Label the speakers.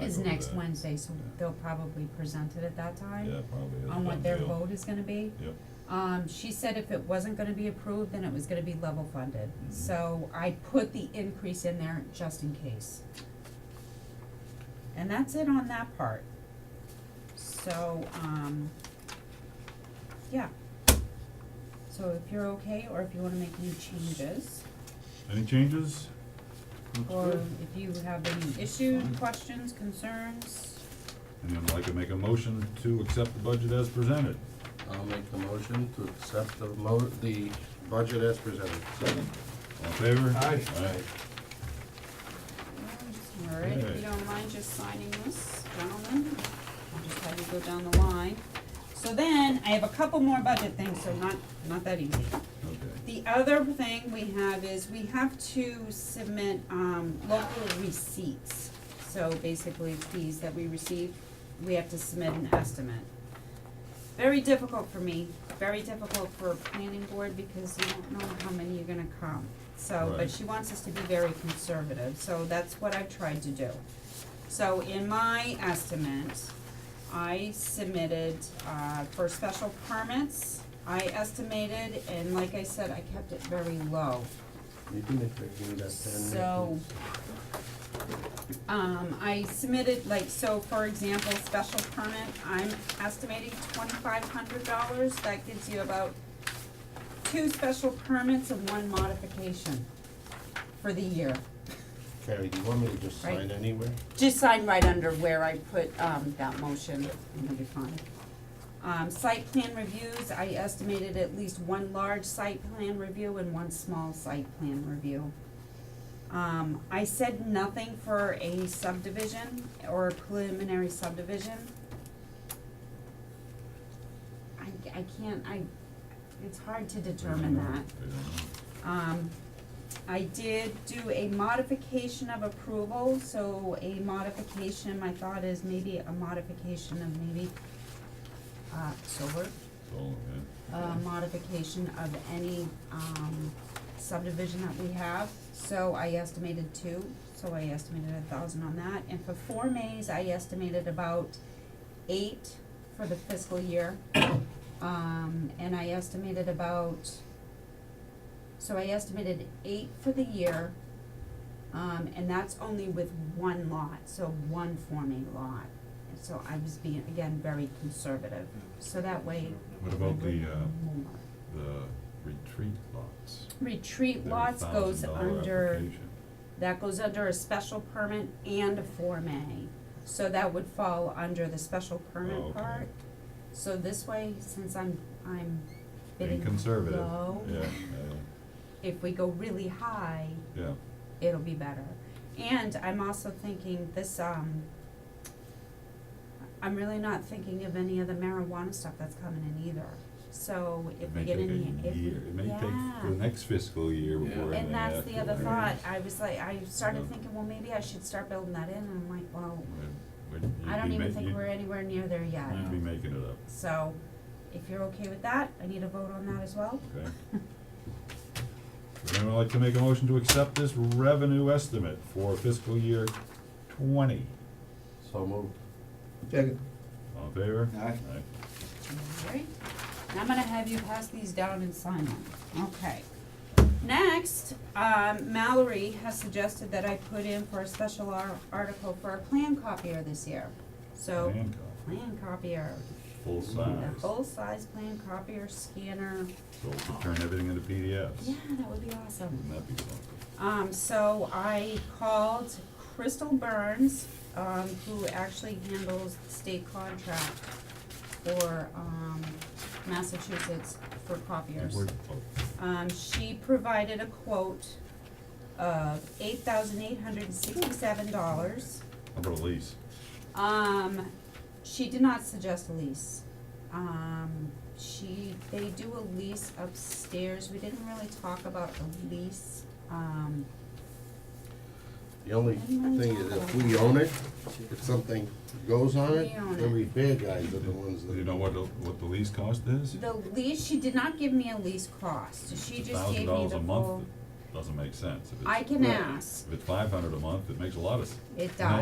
Speaker 1: I
Speaker 2: is
Speaker 1: go with
Speaker 2: next
Speaker 1: that.
Speaker 2: Wednesday, so they'll probably present it at that time
Speaker 1: Yeah, probably is a
Speaker 2: on what
Speaker 1: done
Speaker 2: their
Speaker 1: deal.
Speaker 2: vote is gonna be.
Speaker 1: Yep,
Speaker 2: Um, she said if it wasn't gonna be approved, then it was gonna be level funded.
Speaker 1: Mhm.
Speaker 2: So I put the increase in there just in case. And that's it on that part. So, um, yeah. So if you're okay, or if you wanna make any changes,
Speaker 1: any changes? Looks
Speaker 2: or
Speaker 1: good.
Speaker 2: if you have any issues,
Speaker 1: Fine.
Speaker 2: questions, concerns,
Speaker 1: And I'd like to make a motion to accept the budget as presented.
Speaker 3: I'll make the motion to accept the mo, the budget as presented. Second.
Speaker 1: All in favor?
Speaker 4: Aye.
Speaker 1: Aye.
Speaker 2: All right, if
Speaker 1: Okay.
Speaker 2: you don't mind just signing this, gentlemen, I'll just have you go down the line. So then, I have a couple more budget things, so not, not that easy.
Speaker 1: Okay,
Speaker 2: The other thing we have is we have to submit, um, local receipts. So basically fees that we receive, we have to submit an estimate. Very difficult for me, very difficult for a planning board because you don't know how many are gonna come. So,
Speaker 1: Right.
Speaker 2: but she wants us to be very conservative, so that's what I've tried to do. So in my estimate, I submitted, uh, for special permits, I estimated, and like I said, I kept it very low.
Speaker 3: You can make, the- give me that pen.
Speaker 2: So, um, I submitted, like, so for example, special permit, I'm estimating twenty-five hundred dollars, that gives you about two special permits and one modification for the year.
Speaker 3: Carrie, do you want me to just
Speaker 2: Right.
Speaker 3: sign anywhere?
Speaker 2: Just sign right under where I put, um, that motion, and it'll be fine. Um, site plan reviews, I estimated at least one large site plan review and one small site plan review. Um, I said nothing for a subdivision or a preliminary subdivision. I, I can't, I, it's hard to determine that.
Speaker 1: I don't know.
Speaker 2: Um, I did do a modification of approval, so a modification, my thought is maybe a modification of maybe, uh, solar,
Speaker 1: So,
Speaker 2: a uh, modification of any, um, subdivision that we have. So I estimated two, so I estimated a thousand on that, and for Form As, I estimated about eight for the fiscal year. Um, and I estimated about, so I estimated eight for the year. Um, and that's only with one lot, so one Form A lot. And so I was being, again, very conservative, so that way.
Speaker 1: yeah. What about the, uh,
Speaker 2: more.
Speaker 1: the retreat lots?
Speaker 2: Retreat
Speaker 1: Their
Speaker 2: lots goes
Speaker 1: $1,000
Speaker 2: under,
Speaker 1: application.
Speaker 2: that goes under a special permit and a Form A. So that would fall under the special
Speaker 1: Oh,
Speaker 2: permit
Speaker 1: okay.
Speaker 2: part. So this way, since I'm, I'm bidding
Speaker 1: Being conservative,
Speaker 2: low,
Speaker 1: yeah,
Speaker 2: if we go really high,
Speaker 1: yeah, yeah,
Speaker 2: it'll be better. And I'm also thinking this, um, I'm really not thinking of any of the marijuana stuff that's coming in either. So if
Speaker 1: it
Speaker 2: we
Speaker 1: may
Speaker 2: get
Speaker 1: take
Speaker 2: any,
Speaker 1: a
Speaker 2: if, yeah.
Speaker 1: year, it may take for the next fiscal year
Speaker 3: Yeah.
Speaker 1: before.
Speaker 2: And
Speaker 1: they
Speaker 2: that's
Speaker 1: have
Speaker 2: the
Speaker 1: to
Speaker 2: other
Speaker 1: worry.
Speaker 2: thought, I was like, I
Speaker 1: Yeah.
Speaker 2: started thinking, well, maybe I should start building that in, and I'm like, well,
Speaker 1: Would- would
Speaker 2: I
Speaker 1: you
Speaker 2: don't
Speaker 1: be
Speaker 2: even
Speaker 1: ma-
Speaker 2: think
Speaker 1: you'd-
Speaker 2: we're anywhere near there yet.
Speaker 1: You'd be making it up,
Speaker 2: So, if you're okay with that, I need a vote on that as well.
Speaker 1: okay? Would anyone like to make a motion to accept this revenue estimate for fiscal year twenty?
Speaker 3: So moved.
Speaker 4: Second.
Speaker 1: All in favor?
Speaker 4: Aye.
Speaker 1: Aye.
Speaker 2: Alright, and I'm gonna have you pass these down and sign them, okay. Next, um, Mallory has suggested that I put in for a special ar- article for a plan copier this year. So,
Speaker 1: Plan copy,
Speaker 2: plan copier,
Speaker 1: full
Speaker 2: a
Speaker 1: size, so
Speaker 2: full-size plan copier scanner,
Speaker 1: we could turn everything into PDFs.
Speaker 2: yeah, that would be awesome.
Speaker 1: Wouldn't that be something?
Speaker 2: Um, so I called Crystal Burns, um, who actually handles the state contract for, um, Massachusetts for copiers.
Speaker 1: Word- oh,
Speaker 2: Um, she provided a quote of eight thousand eight hundred and sixty-seven dollars.
Speaker 1: How about a lease?
Speaker 2: Um, she did not suggest a lease. Um, she, they do a lease upstairs. We didn't really talk about a lease. Um,
Speaker 3: The only thing is if we own it, if something goes on it,
Speaker 2: We own
Speaker 3: the
Speaker 2: it.
Speaker 3: repair guys are the ones
Speaker 1: Do you
Speaker 3: that.
Speaker 1: know what, the- what the lease cost is?
Speaker 2: The lease, she did not give me a lease cost, she just
Speaker 1: thousand
Speaker 2: gave me
Speaker 1: dollars a
Speaker 2: the
Speaker 1: month,
Speaker 2: full,
Speaker 1: it doesn't make sense. If it's-
Speaker 2: I can
Speaker 3: Right.
Speaker 2: ask,
Speaker 1: If it's five hundred a month, it makes a lot of sense.
Speaker 2: it does.
Speaker 1: No,